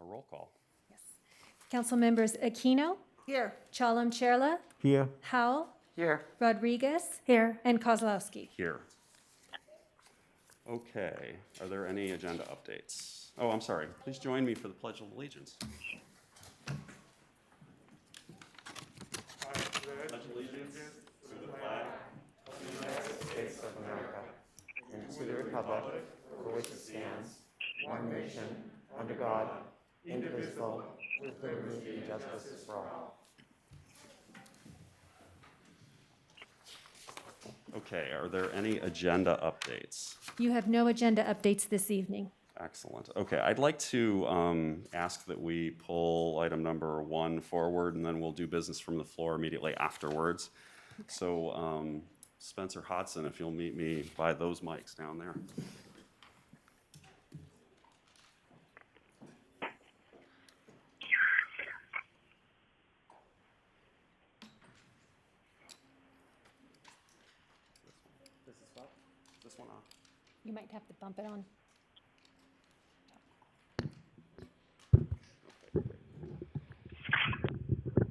a roll call. Council members Aquino, Here. Chalem Chella, Here. Howell, Here. Rodriguez. Here. And Kozlowski. Here. Okay, are there any agenda updates? Oh, I'm sorry. Please join me for the Pledge of Allegiance. To the republic for which it stands, one nation, under God, indivisible, with liberty and justice for all. Okay, are there any agenda updates? You have no agenda updates this evening. Excellent. Okay, I'd like to um, ask that we pull item number one forward, and then we'll do business from the floor immediately afterwards. So um, Spencer Hodson, if you'll meet me by those mics down there. This is what? This one on? You might have to bump it on.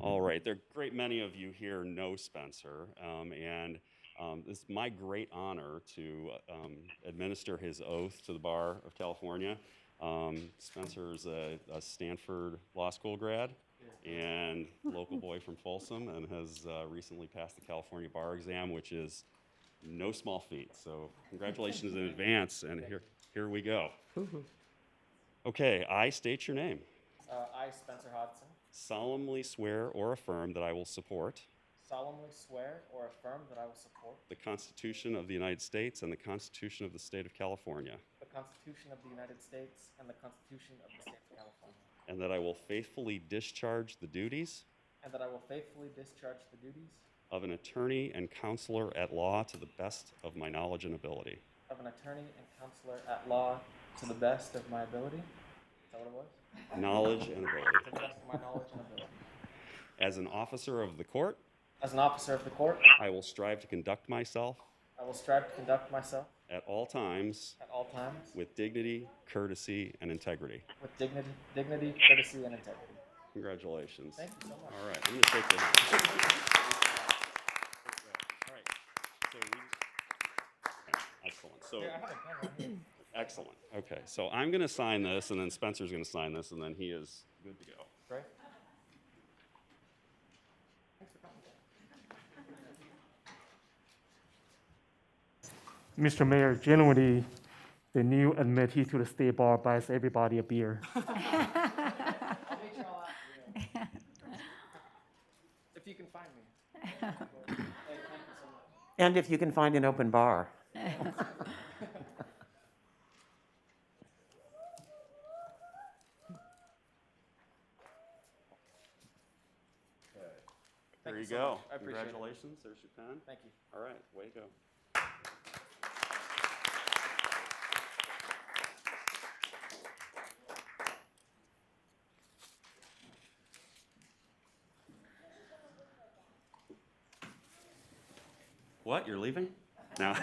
All right, there are a great many of you here know Spencer, um, and um, it's my great honor to um, administer his oath to the Bar of California. Um, Spencer is a, a Stanford Law School grad and local boy from Folsom, and has uh, recently passed the California Bar Exam, which is no small feat. So, congratulations in advance, and here, here we go. Okay, I state your name Uh, I, Spencer Hodgson, solemnly swear or affirm that I will support solemnly swear or affirm that I will support the Constitution of the United States and the Constitution of the State of California, the Constitution of the United States and the Constitution of the State of California, and that I will faithfully discharge the duties and that I will faithfully discharge the duties of an attorney and counselor at law to the best of my knowledge and ability. of an attorney and counselor at law to the best of my ability. Is that what it was? Knowledge and To ability. the best of my knowledge and ability. As an officer of the court, As an officer of the court, I will strive to conduct myself I will strive to conduct myself at all times at all times with dignity, courtesy, and integrity. with dignity, dignity, courtesy, and integrity. Congratulations. Thank you so much. All right, I'm gonna take this. All right, so we- Excellent, so, Here, I have a pen right here. excellent, okay, so I'm gonna sign this, and then Spencer's gonna sign this, and then he is good to go. Right? Mr. Mayor, generally, the new admittee to the state bar buys everybody a beer. If you can find me. And if you can find an open bar. Thank There you so go. much. I appreciate it. Congratulations, there's your pen. Thank you. All right, way to go. What, you're leaving? No.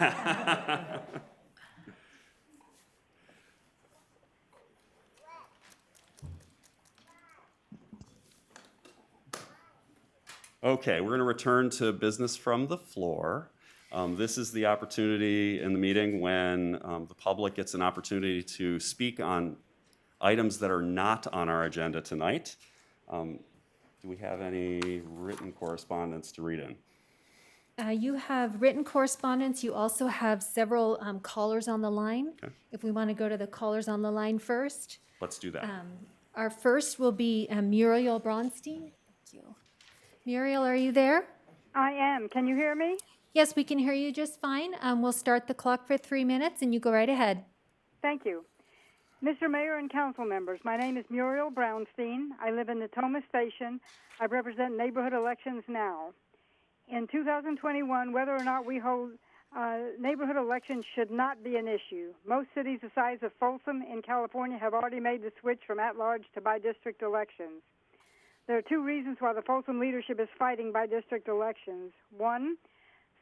Okay, we're going to return to business from the floor. Um, This is the opportunity in the meeting when um, the public gets an opportunity to speak on items that are not on our agenda tonight. Um, Do we have any written correspondence to read in? Uh, You have written correspondence. You also have several um, callers on the line. If we want to go to the callers on the line first. Let's do that. Our first will be um, Muriel Bronstein. Thank you. Muriel, are you there? I am. Can you hear me? Yes, we can hear you just fine. Um, We'll start the clock for three minutes, and you go right ahead. Thank you. Mr. Mayor and council members, my name is Muriel Brownstein. I live in the Toma Station. I represent neighborhood elections now. In 2021, whether or not we hold uh, neighborhood elections should not be an issue. Most cities the size of Folsom in California have already made the switch from at large to by district elections. There are two reasons why the Folsom leadership is fighting by district elections. One,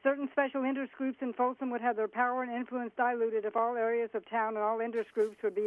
Certain special interest groups in Folsom would have their power and influence diluted if all areas of town and all interest groups would be